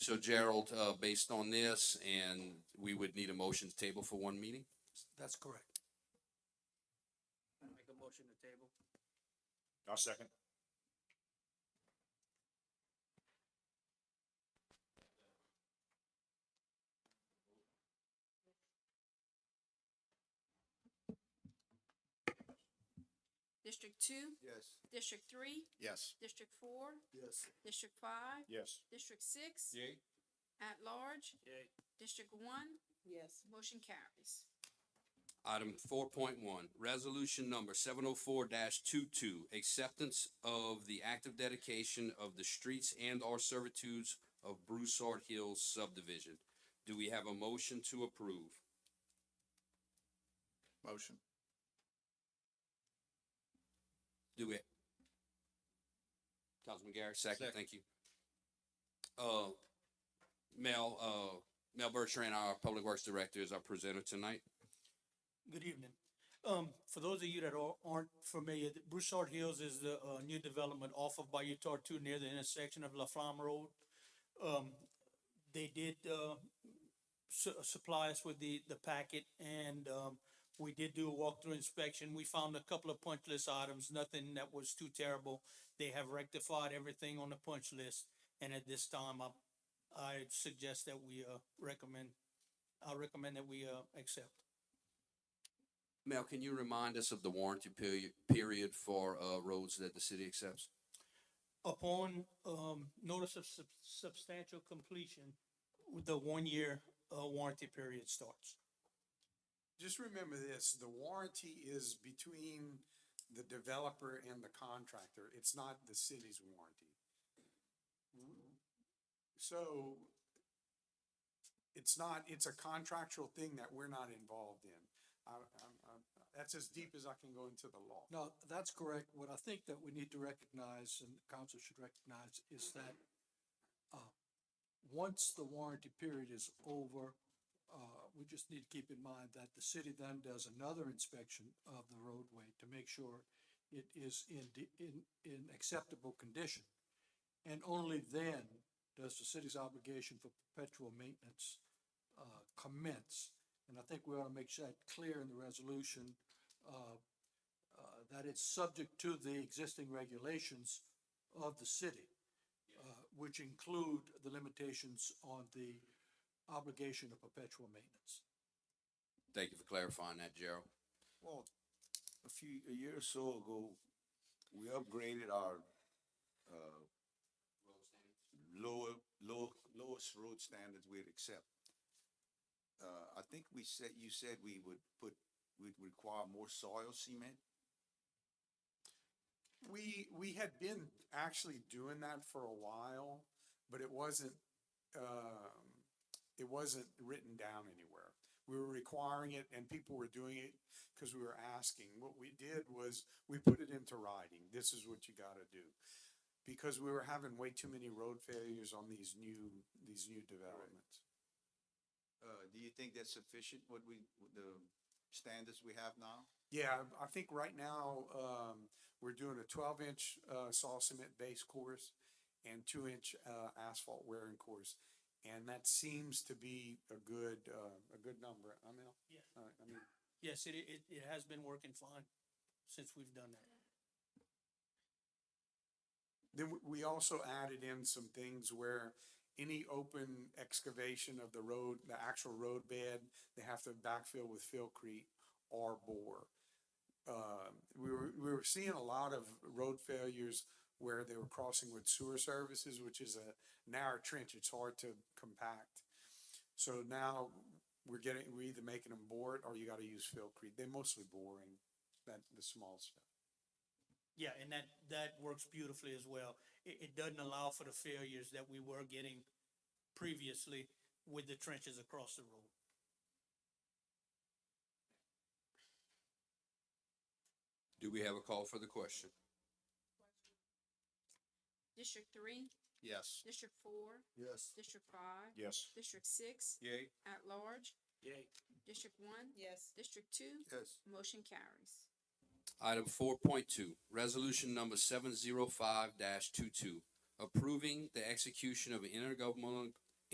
So Gerald, uh, based on this, and we would need a motion to table for one meeting? That's correct. Make a motion to table. I'll second. District two, Yes. District three, Yes. District four, Yes. District five, Yes. District six, Yay. at large, Yay. District one, yes, motion carries. Item four point one, resolution number seven oh four 22 acceptance of the active dedication of the streets and our servitudes of Broussard Hills subdivision. Do we have a motion to approve? Motion. Do it. Councilman Garrett, second, Second. thank you. Uh, Mel, uh, Mel Bertrand, our Public Works Director, is our presenter tonight. Good evening. Um, for those of you that are- aren't familiar, the Broussard Hills is the, uh, new development off of Bayou Tartu near the intersection of La Flamme Road. Um, they did, uh, su- uh, supply us with the, the packet and, um, we did do a walkthrough inspection. We found a couple of punch list items, nothing that was too terrible. They have rectified everything on the punch list. And at this time, I, I suggest that we, uh, recommend, I recommend that we, uh, accept. Mel, can you remind us of the warranty period, period for, uh, roads that the city accepts? upon um notice of sub- substantial completion, the one-year uh warranty period starts. Just remember this, the warranty is between the developer and the contractor. It's not the city's warranty. So it's not, it's a contractual thing that we're not involved in. I, I'm, I'm, that's as deep as I can go into the law. No, that's correct. What I think that we need to recognize and the council should recognize is that uh, once the warranty period is over, uh, we just need to keep in mind that the city then does another inspection of the roadway to make sure it is in, de- in, in acceptable condition. And only then does the city's obligation for perpetual maintenance uh, commence. And I think we ought to make that clear in the resolution, uh, uh, that it's subject to the existing regulations of the city, uh, which include the limitations on the obligation of perpetual maintenance. Thank you for clarifying that, Gerald. Well, a few, a year or so ago, we upgraded our, uh, lower, low, lowest road standards we'd accept. Uh, I think we said, you said we would put, we'd require more soil cement. We, we had been actually doing that for a while, but it wasn't, um, it wasn't written down anywhere. We were requiring it and people were doing it because we were asking. What we did was we put it into writing. This is what you gotta do. Because we were having way too many road failures on these new, these new developments. Uh, do you think that's sufficient, what we, the standards we have now? Yeah, I think right now, um, we're doing a twelve inch, uh, saw cement base course and two inch, uh, asphalt wearing course. And that seems to be a good, uh, a good number. I mean, Yes. uh, I mean, Yes, it it it has been working fine since we've done that. then we- we also added in some things where any open excavation of the road, the actual road bed, they have to backfill with fillcrete or bore. Um, we were, we were seeing a lot of road failures where they were crossing with sewer services, which is a narrow trench. It's hard to compact. So now we're getting, we're either making them bore it or you gotta use fillcrete. They're mostly boring, that, the small stuff. Yeah, and that that works beautifully as well. It it doesn't allow for the failures that we were getting previously with the trenches across the road. Do we have a call for the question? District three, Yes. District four, Yes. District five, Yes. District six, Yay. at large, Yay. District one, yes, District two, Yes. motion carries. Item four point two, resolution number seven zero five 22 approving the execution of an intergovernmental,